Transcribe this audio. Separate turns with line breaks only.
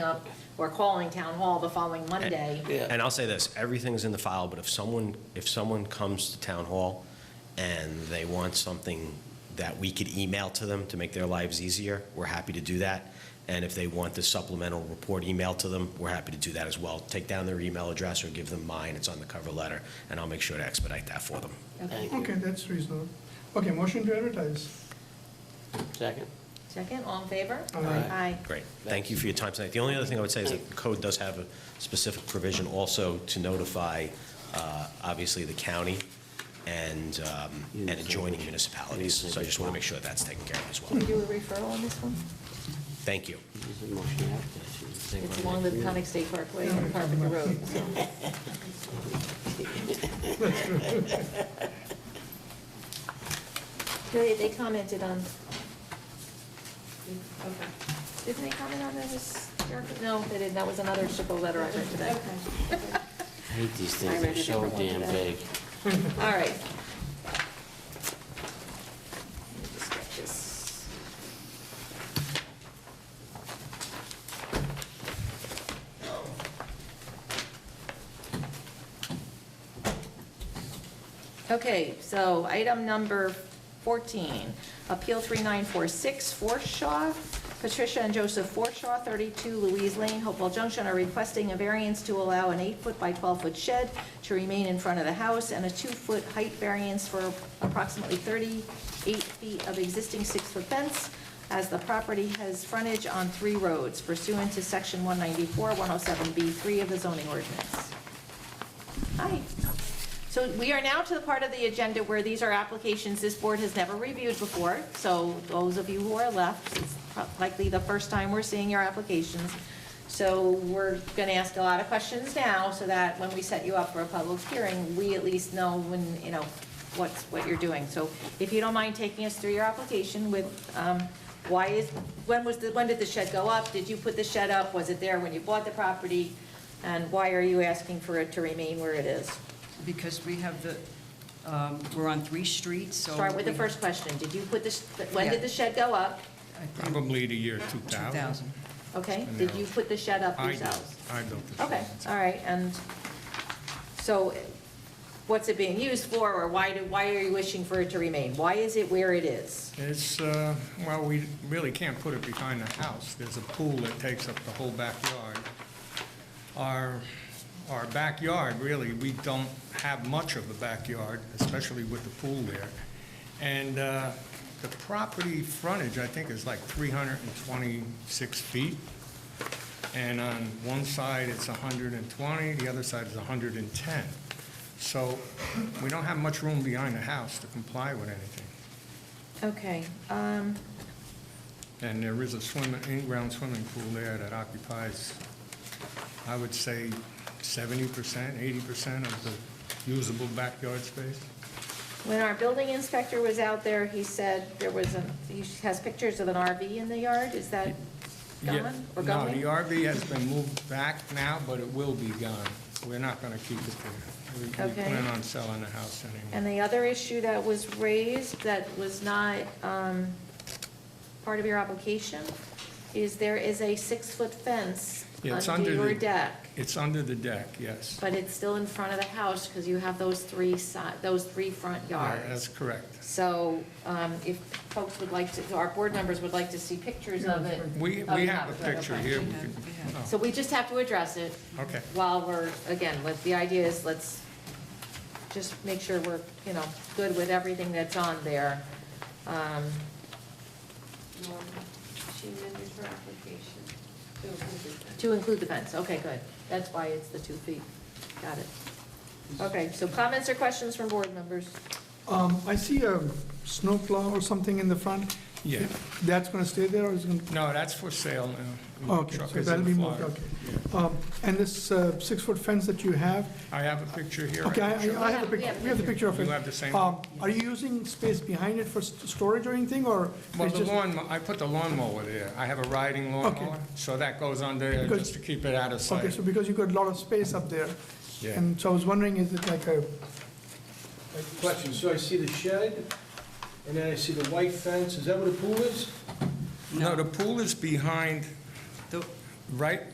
up, we're calling town hall the following Monday.
And I'll say this, everything's in the file, but if someone, if someone comes to town hall and they want something that we could email to them to make their lives easier, we're happy to do that. And if they want the supplemental report emailed to them, we're happy to do that as well. Take down their email address or give them mine, it's on the cover letter, and I'll make sure to expedite that for them.
Okay, that's reasonable. Okay, motion to advertise.
Second.
Second, all in favor?
Aye.
Great, thank you for your time tonight. The only other thing I would say is that the code does have a specific provision also to notify, uh, obviously, the county and um, and adjoining municipalities. So I just want to make sure that that's taken care of as
Can we
well.
do a referral on this one?
Thank you.
Is it motion after?
It's along the Conic State Parkway and Carpenter Road, so. They, they commented on, okay. Didn't they comment on this? No, they didn't, that was another Shippo letter I read today.
I hate these
I
things,
read
they're
a
so
different one
damn
today.
big.
All right. Let me just get this. Okay, so item number 14, Appeal 3946, Forshaw. Patricia and Joseph Forshaw, 32 Louise Lane, Hopewell Junction, are requesting a variance to allow an eight-foot by 12-foot shed to remain in front of the house and a two-foot height variance for approximately 38 feet of existing six-foot fence, as the property has frontage on three roads pursuant to Section 194, 107B3 of the zoning ordinance. Hi. So we are now to the part of the agenda where these are applications this board has never reviewed before. So those of you who are left, it's likely the first time we're seeing your applications. So we're going to ask a lot of questions now so that when we set you up for a public hearing, we at least know when, you know, what's, what you're doing. So if you don't mind taking us through your application with, um, why is, when was the, when did the shed go up? Did you put the shed up? Was it there when you bought the property? And why are you asking for it to remain where it is?
Because we have the, um, we're on three streets, so.
Start with the
we-
first question. Did you put the, sh- when did
Yeah.
the shed go up?
I think
Probably the year 2000.
2,000.
Okay, did you put the shed up
I built,
yourselves?
I built the
Okay,
shed.
all right, and so what's it being used for, or why do, why are you wishing for it to remain? Why is it where it is?
It's, uh, well, we really can't put it behind the house. There's a pool that takes up the whole backyard. Our, our backyard, really, we don't have much of a backyard, especially with the pool there. And uh, the property frontage, I think, is like 326 feet. And on one side, it's 120, the other side is 110. So we don't have much room behind the house to comply with anything.
Okay, um,
And there is a swimming, in-ground swimming pool there that occupies, I would say, seventy percent, eighty percent of the usable backyard space.
when our building inspector was out there, he said there was a, he has pictures of an RV in the yard, is that
Yeah.
gone or going?
No, the RV has been moved back now, but it will be gone. We're not gonna keep it there. We- We
Okay.
plan on selling the house
And
anyway.
the other issue that was raised that was not um, part of your application is there is a six-foot fence
Yeah, it's
under
under
your
the-
deck,
It's under the deck, yes.
but it's still in front of the house because you have those three side, those three front
Yeah,
yards.
That's correct.
So um, if folks would like to, our board members would like to see pictures of it.
We,
Oh,
we
you
have
have
a
it,
picture
okay.
here.
We
We
have-
could-
we have.
oh.
So we just have to address it.
Okay.
While we're, again, let, the idea is let's just make sure we're, you know, good with everything that's on there. Um,
She amended her application to
To include the fence, okay, good. That's why it's the two feet. Got it. Okay, so comments or questions from board members?
Um, I see a snowplow or something in the front.
Yeah.
That's gonna stay there or is it gonna?
No, that's for sale now.
Okay,
Mm, Truck
so
is
that'll
in
be moved,
Florida.
okay. Um, and this, uh, six-foot fence that you have,
I have a picture here.
okay, I,
Sure.
I- I have the
We have-
pic, we have the picture of
You
it.
have the same?
Um, are you using space behind it for s- storage or anything, or?
Well,
it's
the
just-
lawn, I put the lawnmower there. I have a riding lawnmower,
Okay.
so that goes on there
Because-
just to keep it out of
Okay,
sight.
so because you got a lot of space up there.
Yeah.
And so I was wondering, is it like a,
Question, so I see the shed, and then I see the white fence, is that where the pool is?
No, the pool is behind,
The-
right,